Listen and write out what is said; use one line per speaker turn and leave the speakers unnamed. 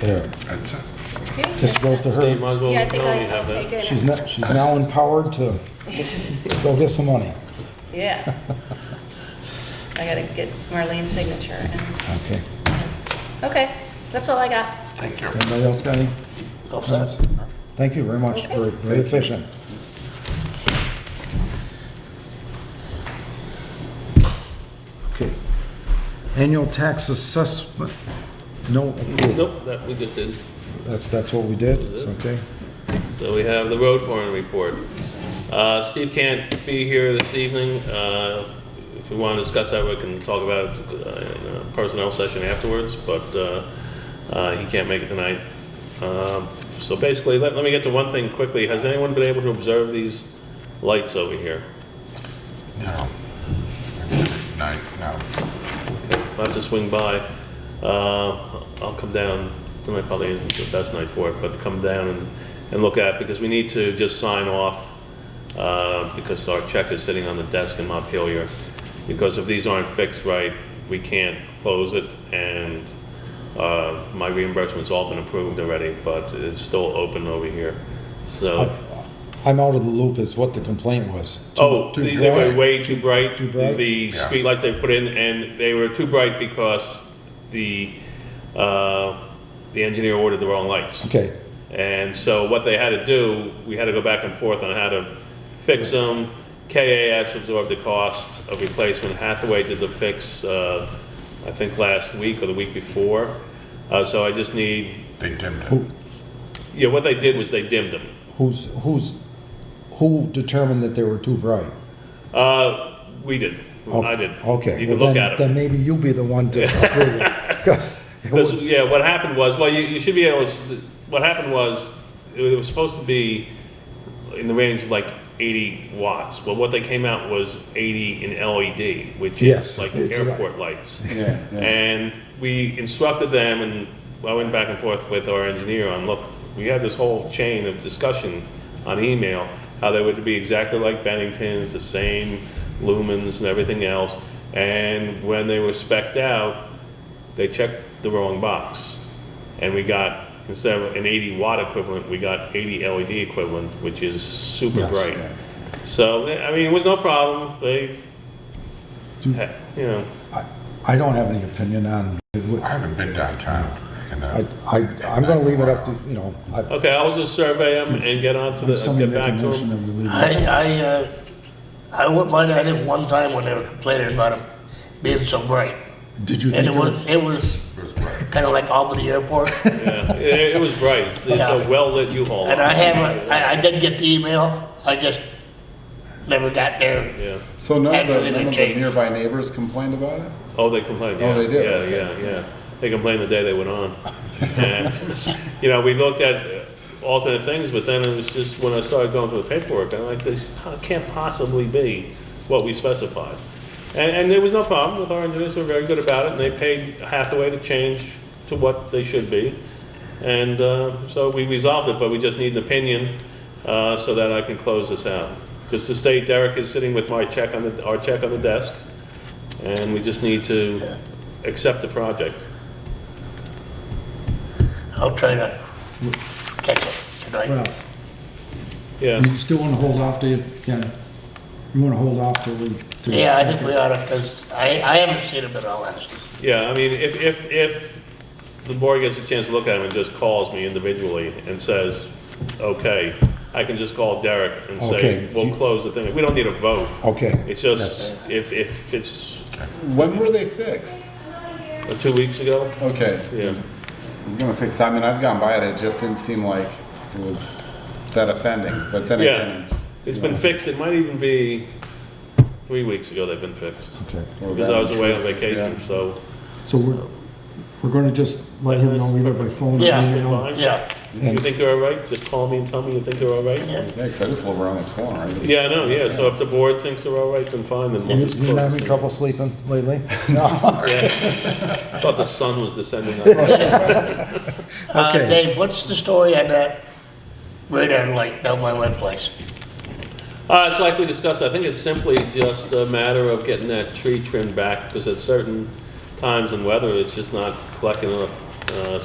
There,
That's it.
this goes to
You
her.
might as well,
Yeah, I
know
think
you have
I'll take
that.
it.
She's not, she's now empowered to go get some money.
Yeah. I gotta get Marlene's signature. and-
Okay.
Okay, that's all I got.
Thank you.
Anybody else got any? comments? Thank you very much. Very, very efficient. Okay. Annual tax assessment, no approval.
Nope, that we just did.
That's, that's what we did, It's okay?
So we have the road foreman report. Uh, Steve can't be here this evening. Uh, If we want to discuss that, we can talk about it uh, in a personnel session afterwards, but uh, uh, he can't make it tonight. Um, So basically, let let me get to one thing quickly. Has anyone been able to observe these lights over here?
No. Night, no.
I'll have to swing by. Uh, I'll come down, tonight probably isn't the best night for it, but come down and, and look at, it, because we need to just sign off, uh, because our check is sitting on the desk in Montpelier. Because if these aren't fixed right, we can't close it, and, uh, my reimbursement's all been approved already, but it's still open over here, so.
I'm out of the loop is what the complaint was. Too-
Oh,
too
they they were
dry?
way too bright.
Too bright?
The
Yeah.
streetlights they put in, and they were too bright because the, uh, the engineer ordered the wrong lights.
Okay,
And so what they had to do, we had to go back and forth on how to fix them. KAS absorbed the cost of replacement. Hathaway did the fix, uh, I think last week or the week before. Uh, so I just need,
They dimmed it.
who,
yeah, what they did was they dimmed them.
who's, who's, who determined that they were too bright?
Uh, we did. I did.
Oh, Okay.
You can
well,
look
then-
at
Then
them.
maybe you'll be the one to approve it, because it
Because,
would-
yeah, what happened was, well, you, you should be able, to s- what happened was, it was supposed to be in the range of like 80 watts, but what they came out was 80 in LED, which
Yes,
is like
it's right.
airport lights. And we instructed them, and I went back and forth with our engineer on, look, we had this whole chain of discussion on email, how they would be exactly like Bennington's, the same lumens and everything else. And when they were spec'd out, they checked the wrong box. And we got, instead of an 80 watt equivalent, we got 80 LED equivalent, which is super
Yes.
bright. So, I mean, it was no problem. They, ha- you know,
I- I don't have any opinion on, it.
I haven't been downtown, you
I,
know.
I, I'm gonna leave it up to, you know, I-
okay, I'll just survey them and get on to the,
somebody
get
make a
back to
motion
them.
that we leave
I,
it.
I, uh, I went by there, I think, one time when they were complaining about them being so bright.
Did you
And
think
it
it was?
was, it was
It was bright.
kind of like Albany Airport.
Yeah, it, it was bright. It's it's a
Yeah.
well-lit U-Haul.
And I haven't, I, I did get the email, I just never got there.
Yeah.
So none of
Actually,
the,
they
none of the
changed.
nearby neighbors complained about it?
Oh, they complained.
Oh,
Yeah.
they did,
Yeah,
okay.
yeah, yeah. They complained the day they went on. and, you know, we looked at uh, alternate things, but then it was just when I started going through the paperwork, I'm like, this po- can't possibly be what we specified. And, and there was no problem with our engineers; were very good about it, and they paid Hathaway to change to what they should be. And uh, so we resolved it, but we just need an opinion uh, so that I can close this out. Because the state, Derek is sitting with my check on the, our check on the desk, and we just need to accept the project.
I'll try to catch it tonight.
Well,
Yeah,
You still wanna hold off, do you, Ken? You wanna hold off till we? till-
Yeah, I think we ought to, because I, I haven't seen them in all honesty.
yeah, I mean, if, if, if the board gets a chance to look at them and just calls me individually and says, okay, I can just call Derek and
Okay.
say, we'll close the thing. We don't need a vote.
Okay,
It's just, if, if it's
When were they fixed?
uh, two weeks ago,
Okay,
yeah.
I was gonna say, 'cause I mean, I've gone by it, it just didn't seem like it was that offending, but then
Yeah,
again,
it's been fixed. It might even be three weeks ago they've been fixed.
okay.
Well,
Because I was
that-
away on
yeah.
vacation, so,
So we're, we're gonna just let him know either by phone or
Yeah.
email.
Yeah,
you think they're all right? Just call me and tell me you think they're all right?
yeah.
Yeah, 'cause I just live around the corner. I mean,
Yeah, I know, yeah, so if the board thinks they're all right, then fine, then
You,
we'll just
you not
close
having
this thing.
trouble sleeping lately? No,
I thought the sun was descending on us.
Uh,
Okay.
Dave, what's the story on that radar light down by my place?
Uh, it's like we discussed, I think it's simply just a matter of getting that tree trimmed back, because at certain times and weather, it's just not collecting enough, uh,